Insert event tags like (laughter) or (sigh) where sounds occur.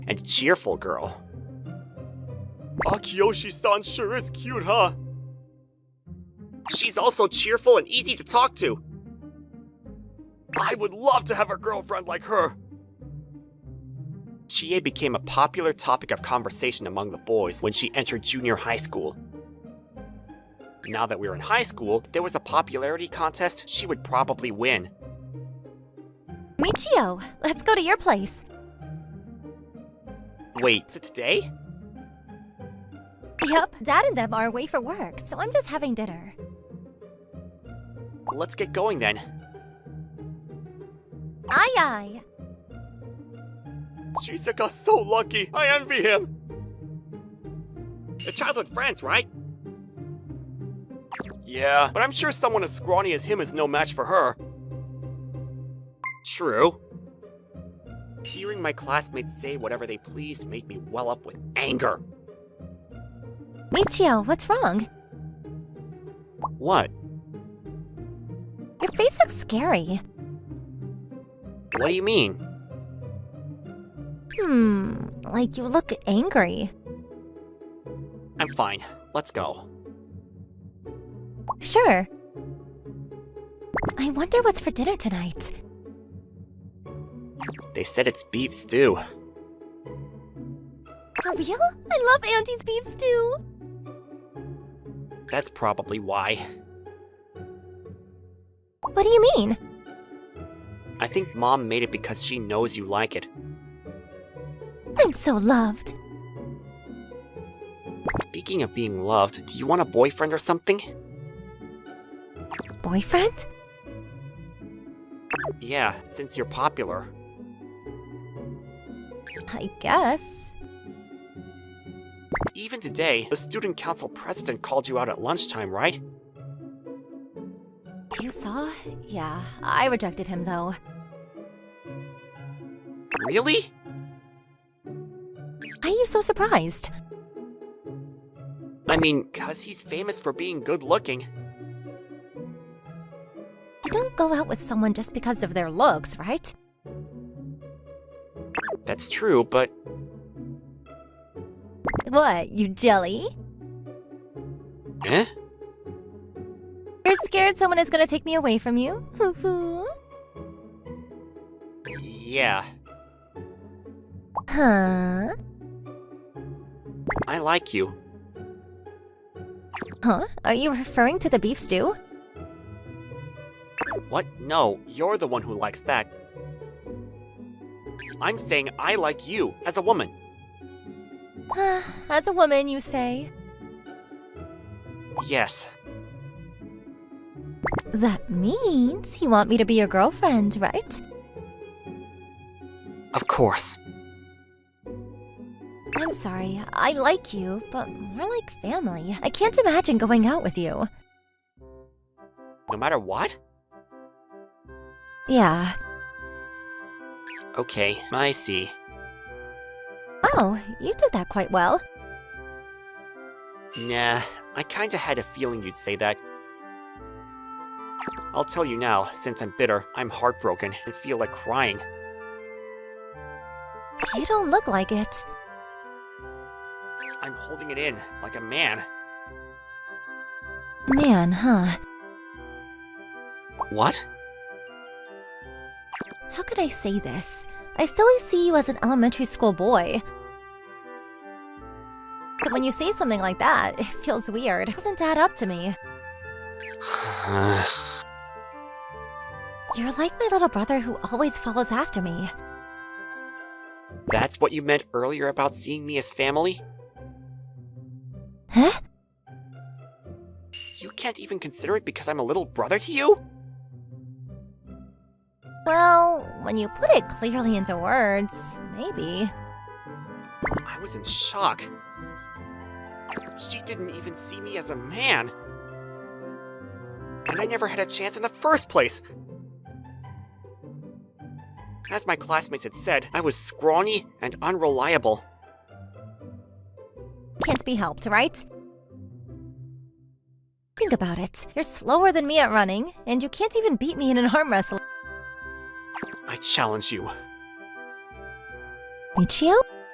and cheerful girl. Akiyoshi-san sure is cute, huh? She's also cheerful and easy to talk to. I would love to have a girlfriend like her. Chie became a popular topic of conversation among the boys when she entered junior high school. Now that we were in high school, if there was a popularity contest, she would probably win. Michio, let's go to your place. Wait, is it today? Yep, Dad and them are away for work, so I'm just having dinner. Let's get going then. Aye aye. Shizuka's so lucky. I envy him. The childhood friends, right? Yeah, But I'm sure someone as scrawny as him is no match for her. True. Hearing my classmates say whatever they pleased made me well up with anger. Michio, what's wrong? What? Your face looks scary. What do you mean? Hmm, like you look angry. I'm fine. Let's go. Sure. I wonder what's for dinner tonight. They said it's beef stew. For real? I love Auntie's beef stew. That's probably why. What do you mean? I think mom made it because she knows you like it. I'm so loved. Speaking of being loved, do you want a boyfriend or something? Boyfriend? Yeah, since you're popular. I guess. Even today, the student council president called you out at lunchtime, right? You saw? Yeah, I rejected him though. Really? Why are you so surprised? I mean, cuz he's famous for being good looking. You don't go out with someone just because of their looks, right? That's true, but What, you jelly? eh? You're scared someone is gonna take me away from you? Hoo hoo. Yeah, Huh? I like you. Huh? Are you referring to the beef stew? (sighs) What? No, you're the one who likes that. I'm saying I like you as a woman. As a woman, you say. Yes. That means you want me to be your girlfriend, right? Of course. I'm sorry, I like you, but more like family. I can't imagine going out with you. No matter what? Yeah. Okay, I see. Oh, you did that quite well. Nah, I kinda had a feeling you'd say that. I'll tell you now, since I'm bitter, I'm heartbroken and feel like crying. You don't look like it. I'm holding it in, like a man. Man, huh? What? (sighs) How could I say this? I still see you as an elementary school boy. So when you say something like that, it feels weird. It doesn't add up to me. You're like my little brother who always follows after me. That's what you meant earlier about seeing me as family? Huh? You can't even consider it because I'm a little brother to you? Well, when you put it clearly into words, maybe. I was in shock. She didn't even see me as a man. And I never had a chance in the first place. As my classmates had said, I was scrawny and unreliable. Can't be helped, right? Think about it. You're slower than me at running, and you can't even beat me in an arm wrestle. I challenge you. Michio?